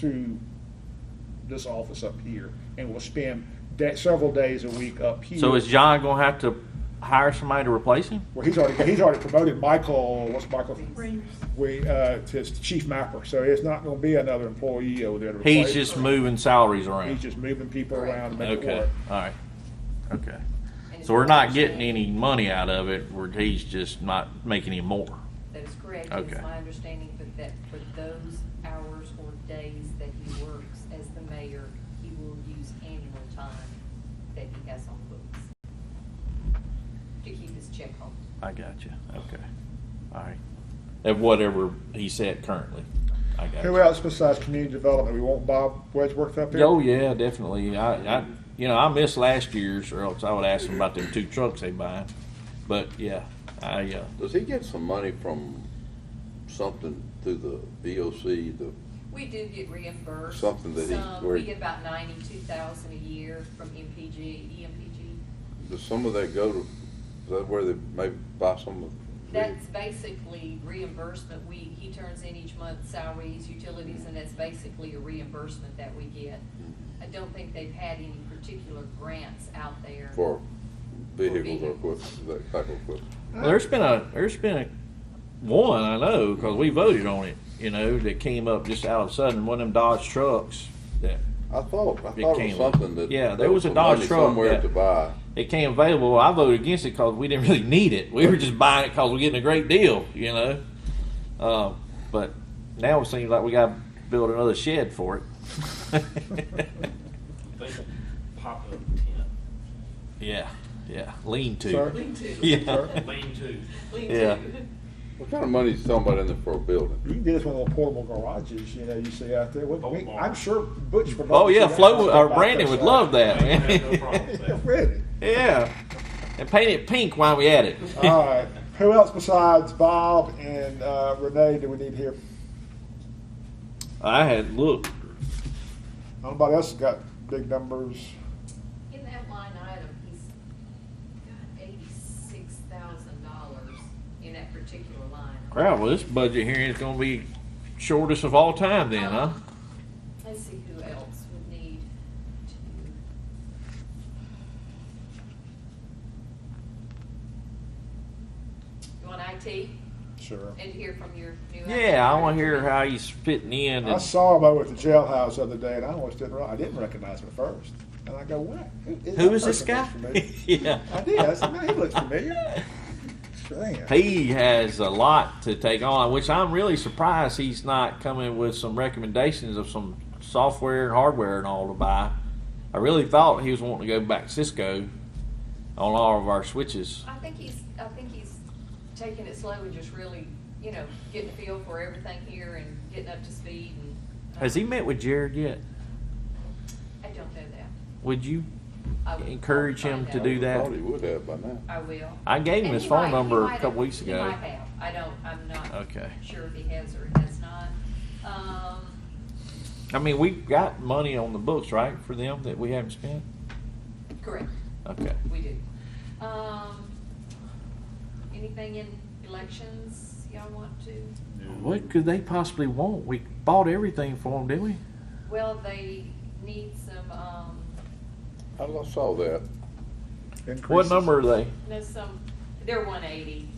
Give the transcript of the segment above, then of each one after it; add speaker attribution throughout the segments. Speaker 1: to this office up here, and will spend da- several days a week up here.
Speaker 2: So is John gonna have to hire somebody to replace him?
Speaker 1: Well, he's already, he's already promoted Michael, what's Michael? We, uh, to chief mapper, so it's not gonna be another employee over there to replace.
Speaker 2: He's just moving salaries
Speaker 1: He's
Speaker 2: around.
Speaker 1: just moving people around to make it
Speaker 2: Okay,
Speaker 1: work.
Speaker 2: all right. Okay. So we're not getting any money out of it, we're, he's just not making any more.
Speaker 3: That is correct.
Speaker 2: Okay.
Speaker 3: It's my understanding that, that for those hours or days that he works as the mayor, he will use annual time that he has on books to keep his check home.
Speaker 2: I got you, okay. All right. At whatever he's at currently. I got
Speaker 1: Who
Speaker 2: you.
Speaker 1: else besides community development? We want Bob Wedgeworth up here?
Speaker 2: Oh, yeah, definitely. I, I, you know, I missed last year's or else I would ask him about them two trucks they buying. But yeah, I, uh,
Speaker 4: Does he get some money from something through the VOC, the,
Speaker 3: We do get reimbursed.
Speaker 4: Something that he-
Speaker 3: some.
Speaker 4: where
Speaker 3: We
Speaker 4: he-
Speaker 3: get about ninety-two thousand a year from MPG, EMPG.
Speaker 4: does some of that go to, is that where they maybe buy some of?
Speaker 3: That's basically reimbursement. We, he turns in each month salaries, utilities, and that's basically a reimbursement that we get. I don't think they've had any particular grants out there.
Speaker 4: For vehicles or equipment, that type of equipment?
Speaker 2: Well, there's been a there's been a one I know because we voted on it. You know that came up just out of a sudden one of them Dodge trucks that
Speaker 4: I thought, I
Speaker 2: It
Speaker 4: thought it was
Speaker 2: came-
Speaker 4: something that.
Speaker 2: yeah, there was a
Speaker 4: some
Speaker 2: Dodge
Speaker 4: money
Speaker 2: truck
Speaker 4: Somewhere
Speaker 2: that-
Speaker 4: to buy.
Speaker 2: it came available. I voted against it because we didn't really need it. We were just buying it because we're getting a great deal. You know, uh, but now it seems like we got to build another shed for it.
Speaker 5: They can pop up tent,
Speaker 2: yeah, yeah, lean to.
Speaker 1: Sir?
Speaker 3: Lean to.
Speaker 2: Yeah.
Speaker 5: lean to.
Speaker 3: Lean
Speaker 2: Yeah.
Speaker 3: to.
Speaker 4: What kind of money is somebody in there for a
Speaker 1: You
Speaker 4: building?
Speaker 1: can do this with little portable garages, you know, you see out there. What- we- I'm sure Butch would. love
Speaker 2: Oh
Speaker 1: to see
Speaker 2: yeah,
Speaker 1: that.
Speaker 2: Flo or Brandon would love that.
Speaker 5: They have no problem with
Speaker 1: Yeah,
Speaker 5: that.
Speaker 1: Really?
Speaker 2: yeah, and paint it pink while we at it.
Speaker 1: All right. Who else besides Bob and uh, Renee do we need here?
Speaker 2: I had looked.
Speaker 1: Nobody else has got big numbers.
Speaker 3: In that line item, he's got eighty-six thousand dollars in that particular line.
Speaker 2: Wow, well, this budget hearing is going to be shortest of all time, then, huh?
Speaker 3: Let's see who else would need to. You want IT
Speaker 1: Sure.
Speaker 3: and hear from your new?
Speaker 2: Yeah, I want to hear
Speaker 3: IT director?
Speaker 2: how he's fitting in.
Speaker 1: I
Speaker 2: And
Speaker 1: saw him over at the jailhouse the other day, and I almost didn't. re- I didn't recognize him at first, and I go, "What?
Speaker 2: who
Speaker 1: that
Speaker 2: is this
Speaker 1: person?
Speaker 2: guy?
Speaker 1: Looks familiar."
Speaker 2: yeah,
Speaker 1: I did. I said, "Man, he looks familiar." Damn.
Speaker 2: He has a lot to take on, which I'm really surprised he's not coming with some recommendations of some software and hardware and all to buy. I really thought he was wanting to go back Cisco on all of our switches.
Speaker 3: I think he's, I think he's taking it slow and just really, you know, getting a feel for everything here and getting up to speed and. uh,
Speaker 2: Has he met with Jared yet?
Speaker 3: I don't know that.
Speaker 2: Would you
Speaker 3: I will-
Speaker 2: encourage
Speaker 3: I'll
Speaker 2: him
Speaker 3: find
Speaker 2: to
Speaker 3: out.
Speaker 2: do that?
Speaker 4: I thought he would have by now.
Speaker 3: I will.
Speaker 2: I gave him
Speaker 3: And
Speaker 2: his
Speaker 3: he
Speaker 2: phone
Speaker 3: might- he
Speaker 2: number a
Speaker 3: might-
Speaker 2: couple weeks ago.
Speaker 3: He might have. I don't, I'm not.
Speaker 2: Okay.
Speaker 3: Sure if he has or he has not. Um,
Speaker 2: I mean, we've got money on the books, right, for them that we haven't spent?
Speaker 3: correct,
Speaker 2: Okay.
Speaker 3: we do. Um, anything in elections y'all want to?
Speaker 2: What could they possibly want? We bought everything for them, didn't we?
Speaker 3: Well, they need some, um,
Speaker 4: I saw that.
Speaker 2: What
Speaker 1: Increases.
Speaker 2: number are they?
Speaker 3: no, some, they're one eighty.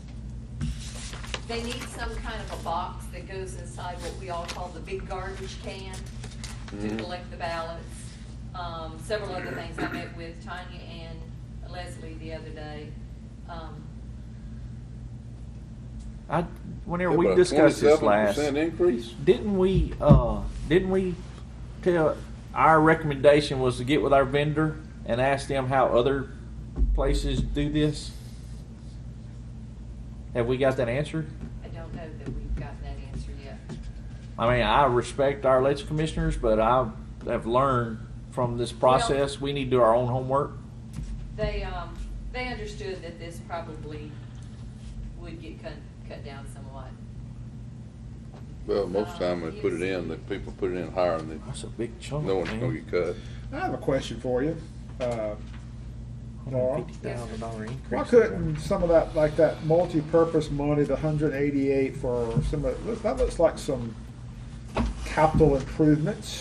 Speaker 3: They need some kind of a box that goes inside what we all call the big garbage can to
Speaker 4: Mhm.
Speaker 3: collect the ballots. Um, several other things. I met with Tanya and Leslie the other day. Um,
Speaker 2: I, whenever
Speaker 4: Yeah,
Speaker 2: we
Speaker 4: but a
Speaker 2: discussed this last,
Speaker 4: 27% increase?
Speaker 2: didn't we, uh, didn't we tell, our recommendation was to get with our vendor and ask them how other places do this? Have we got that answer?
Speaker 3: I don't know that we've gotten that answer yet.
Speaker 2: I mean, I respect our election commissioners, but I have learned from this process, we need to do our own homework.
Speaker 3: They, um, they understood that this probably would get cut, cut down somewhat.
Speaker 4: Well, most of the time when they put it in, the people put it in higher and they,
Speaker 2: That's a big chunk,
Speaker 4: no one's gonna
Speaker 2: man.
Speaker 4: get cut.
Speaker 1: I have a question for you. Uh, Laura.
Speaker 2: dollar increase.
Speaker 1: Why couldn't some of that, like that multi-purpose money, the hundred eighty-eight for some of, look, that looks like some capital improvements.